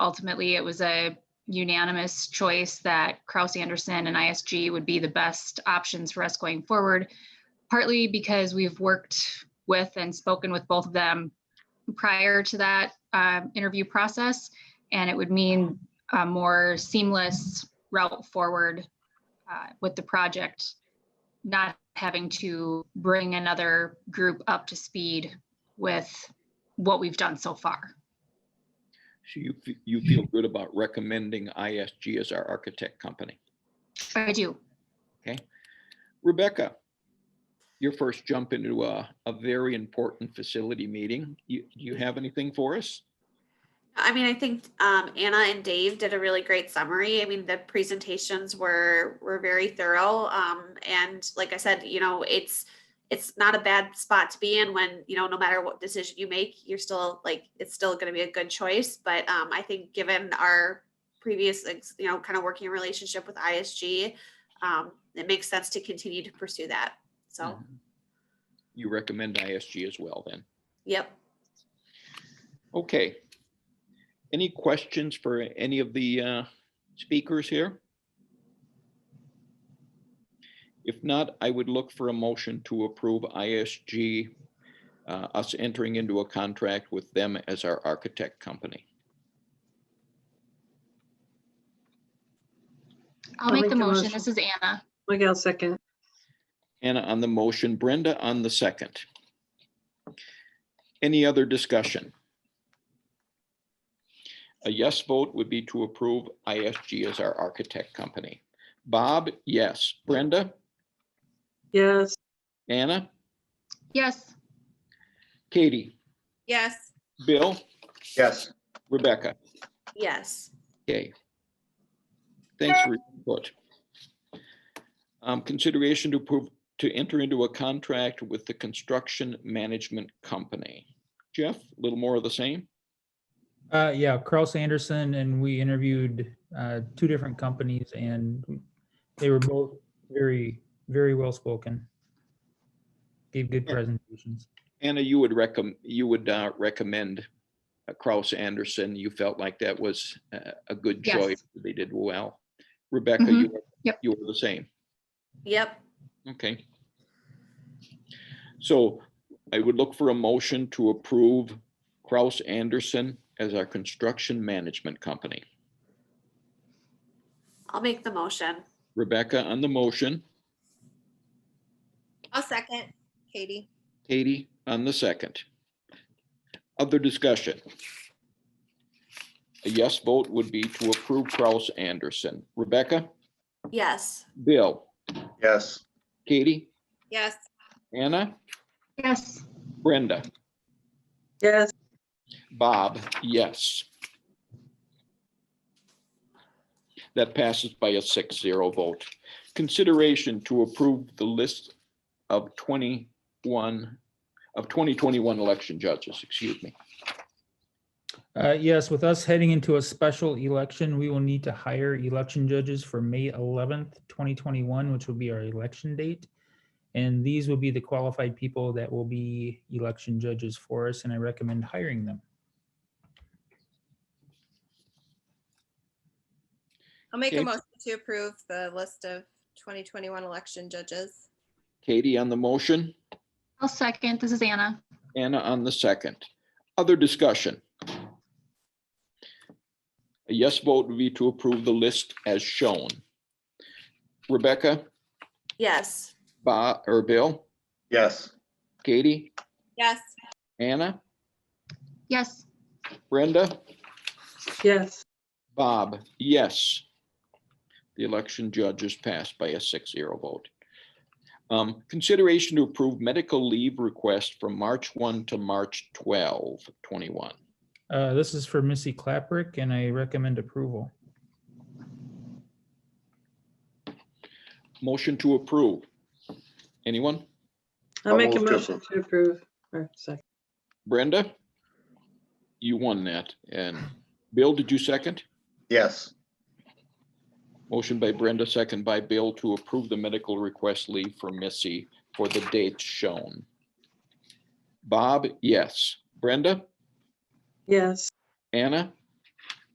ultimately, it was a unanimous choice that Kraus Anderson and ISG would be the best options for us going forward, partly because we've worked with and spoken with both of them prior to that um, interview process, and it would mean a more seamless route forward uh, with the project, not having to bring another group up to speed with what we've done so far. So you, f- you feel good about recommending ISG as our architect company. I do. Rebecca, your first jump into a, a very important facility meeting. You, do you have anything for us? I mean, I think um, Anna and Dave did a really great summary. I mean, the presentations were were very thorough, um, and like I said, you know, it's it's not a bad spot to be in when you know no matter what decision you make, you're still like it's still going to be a good choice. But um, I think given our previous ex- you know kind of working relationship with ISG, um, it makes sense to continue to pursue that. So, Mm-hmm. You recommend ISG as well then? yep. Okay. Any questions for any of the uh, speakers here? If not, I would look for a motion to approve ISG, uh, us entering into a contract with them as our architect company. I'll make the motion. This is Anna. Miguel second. Anna on the motion, Brenda on the second. Any other discussion? A yes vote would be to approve ISG as our architect company. Bob, yes. Brenda, Yes, Anna, Yes, Katie, Yes. Bill, Yes, Rebecca. Yes. Okay. Thanks for your input. Um, consideration to approve, to enter into a contract with the construction management company. Jeff, a little more of the same? Uh, yeah, Carl Sanderson and we interviewed uh, two different companies and they were both very, very well spoken. Gave good Yeah. presentations. Anna, you would recommend, you would uh, recommend uh, Kraus Anderson. You felt like that was uh, a good Yes. choice. They did well. Rebecca, Mhm. you, Yep. you were the same. Yep. Okay. So I would look for a motion to approve Kraus Anderson as our construction management company. I'll make the motion. Rebecca on the motion, I'll second, Katie. Katie on the second. Other discussion? A yes vote would be to approve Kraus Anderson. Rebecca? Yes. Bill, yes, Katie, Yes, Anna, yes, Brenda, yes, Bob, yes. That passes by a six zero vote. Consideration to approve the list of twenty-one, of twenty twenty-one election judges, excuse me. Uh, yes, with us heading into a special election, we will need to hire election judges for May eleventh, twenty twenty-one, which will be our election date. And these will be the qualified people that will be election judges for us, and I recommend hiring them. I'll make a Okay. motion to approve the list of 2021 election judges. Katie on the motion, I'll second. This is Anna. Anna on the second. Other discussion? A yes vote would be to approve the list as shown. Rebecca, Yes. Bob, or Bill? yes, Katie, Yes, Anna, Yes, Brenda, yes, Bob, yes. The election judge is passed by a six zero vote. Um, consideration to approve medical leave request from March one to March 12, 21. Uh, this is for Missy Claperick, and I recommend approval. Motion to approve. Anyone? I'll I'll make a move to motion to approve, or second, Brenda? You won that. And Bill, did you second? yes, Motion by Brenda, second by Bill to approve the medical request leave for Missy for the dates shown. Bob, yes. Brenda, yes, Anna,